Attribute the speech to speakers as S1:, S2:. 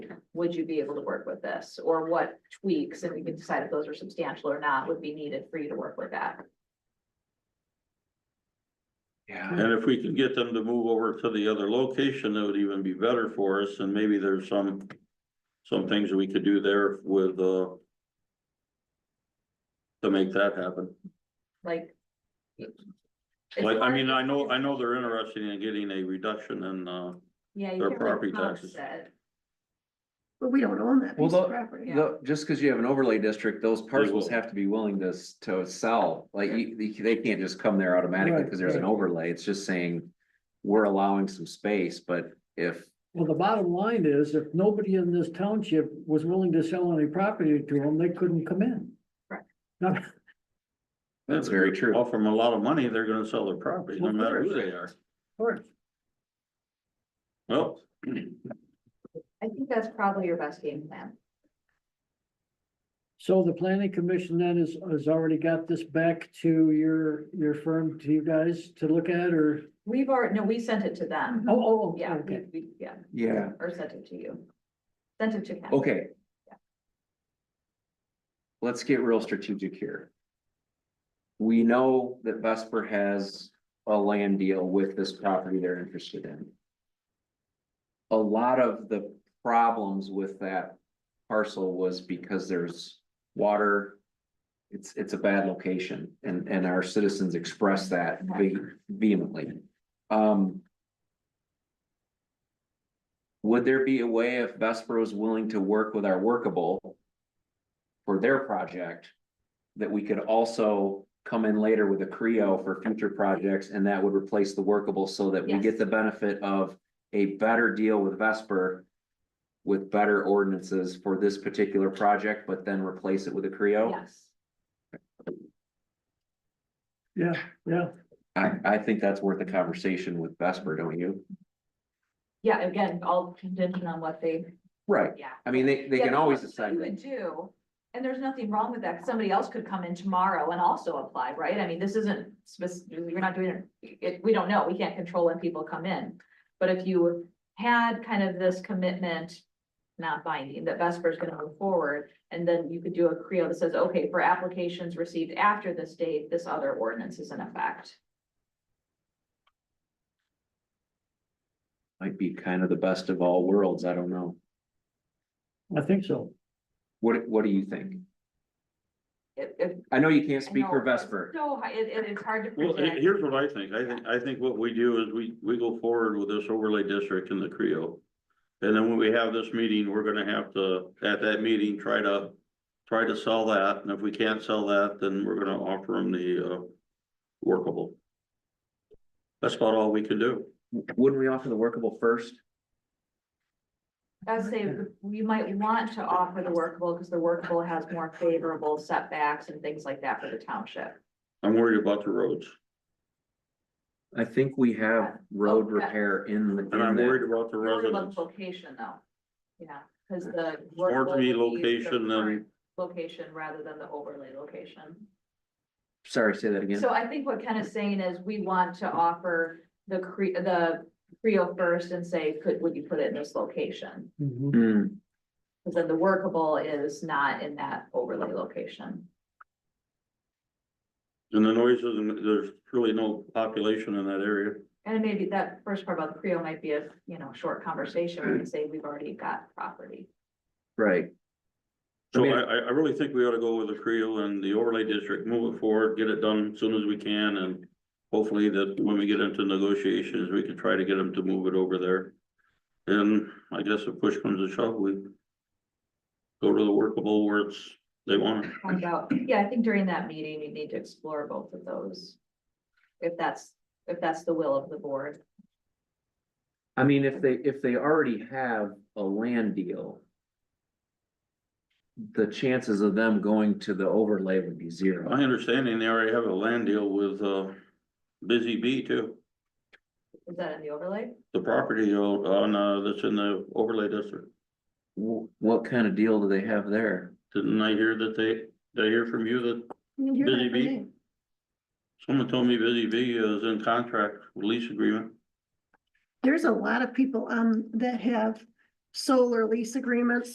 S1: would you be able to work with this? Or what tweaks, and we can decide if those are substantial or not, would be needed for you to work with that?
S2: Yeah,
S3: And if we can get them to move over to the other location, that would even be better for us, and maybe there's some. Some things that we could do there with, uh. To make that happen,
S1: Like. As
S3: like, I
S1: far
S3: mean,
S1: as-
S3: I know, I know they're interested in getting a reduction in, uh,
S1: Yeah. you
S3: their
S1: can't
S3: property
S1: really
S3: taxes.
S1: offset.
S4: But we don't own that
S5: Well,
S4: piece of
S5: the-
S4: property.
S5: No, just because you have an overlay district, those
S3: will.
S5: parcels have to be willing to, s- to sell, like, you, they- they can't just come there automatically,
S6: Right,
S5: because there's an
S6: right.
S5: overlay, it's just saying. We're allowing some space, but if,
S6: Well, the bottom line is if nobody in this township was willing to sell any property to them, they couldn't come in.
S1: Correct.
S6: Not-
S5: that's very true,
S3: offer them a lot of money, they're gonna sell their property, no
S6: Of
S3: matter who
S6: course.
S3: they are.
S6: Correct.
S3: Well,
S1: I think that's probably your best game plan.
S6: So the planning commission then is, has already got this back to your, your firm, to you guys to look at or?
S1: We've already, no, we sent it to them.
S6: Oh, oh, oh,
S1: Yeah, we-
S6: okay.
S1: we- yeah,
S5: Mm-hmm. yeah,
S1: or sent it to you. Sent it to Ken.
S5: okay. Let's get real strategic here. We know that Vesper has a land deal with this property they're interested in. A lot of the problems with that parcel was because there's water. It's, it's a bad location and, and our citizens express that ve- vehemently. Um. Would there be a way if Vesper was willing to work with our workable? For their project, that we could also come in later with a Creo for future projects and that would replace the workable so that we
S1: Yes.
S5: get the benefit of a better deal with Vesper. With better ordinances for this particular project, but then replace it with a Creo.
S1: Yes.
S6: Yeah, yeah.
S5: I, I think that's worth a conversation with Vesper, don't you?
S1: Yeah, again, all contingent on what they,
S5: Right,
S1: yeah.
S5: I mean, they, they
S1: Yeah,
S5: can
S1: because
S5: always
S1: what
S5: decide.
S1: You would do, and there's nothing wrong with that, 'cause somebody else could come in tomorrow and also apply, right? I mean, this isn't specific, you're not doing it, it, we don't know, we can't control when people come in. But if you had kind of this commitment, not binding, that Vesper's gonna move forward, and then you could do a Creo that says, okay, for applications received after this date, this other ordinance is in effect.
S5: Might be kind of the best of all worlds, I don't know.
S6: I think so.
S5: What, what do you think?
S1: It, it.
S5: I know you can't
S1: I
S5: speak
S1: know
S5: for
S1: it's
S5: Vesper.
S1: So, hi- it, it- it's hard to
S3: Well, he-
S1: predict,
S3: here's what I think. I think, I think what we do is we, we go forward with this overlay district in the Creo. And then when we have this meeting, we're gonna have to, at that meeting, try to, try to sell that. And if we can't sell that, then we're gonna offer them the, uh, workable. That's about all we can do.
S5: Wouldn't we offer the workable first?
S1: I'd say you might want to offer the workable, because the workable has more favorable setbacks and things like that for the township.
S3: I'm worried about the roads
S5: I think we have road
S1: Oh, yeah.
S5: repair in the.
S3: and I'm worried about the
S1: Really about
S3: residents.
S1: the Location though, yeah, because the.
S3: More to be
S1: workable would be the
S3: location than,
S1: current Location rather than the overlay location.
S5: Sorry, say that again.
S1: So I think what Ken is saying is we want to offer the cre- the Creo first and say, could, would you put it in this location?
S6: Mhm.
S5: Hmm,
S1: Because then the workable is not in that overlay location.
S3: and the noises, and there's really no population in that area.
S1: And maybe that first part about the Creo might be a, you know, short conversation, where we say we've already got property.
S5: right,
S3: So
S5: I mean-
S3: I, I, I really think we ought to go with the Creel and the overlay district, move it forward, get it done as soon as we can, and hopefully that when we get into negotiations, we can try to get them to move it over there. And I guess if push comes to shove, we go to the workable where it's, they want it.
S1: Find out, yeah, I think during that meeting, you need to explore both of those. If that's, if that's the will of the board,
S5: I mean, if they, if they already have a land deal. The chances of them going to the overlay would be zero.
S3: My understanding, they already have a land deal with, uh, Busy Bee too,
S1: is that in the overlay?
S3: the property on, uh, that's in the overlay district.
S5: Wh- What kind of deal do they have there?
S3: Didn't I hear that they, did I hear from you that Busy Bee? Someone told me Busy Bee is in contract with lease agreement.
S4: There's a lot of people, um, that have solar lease agreements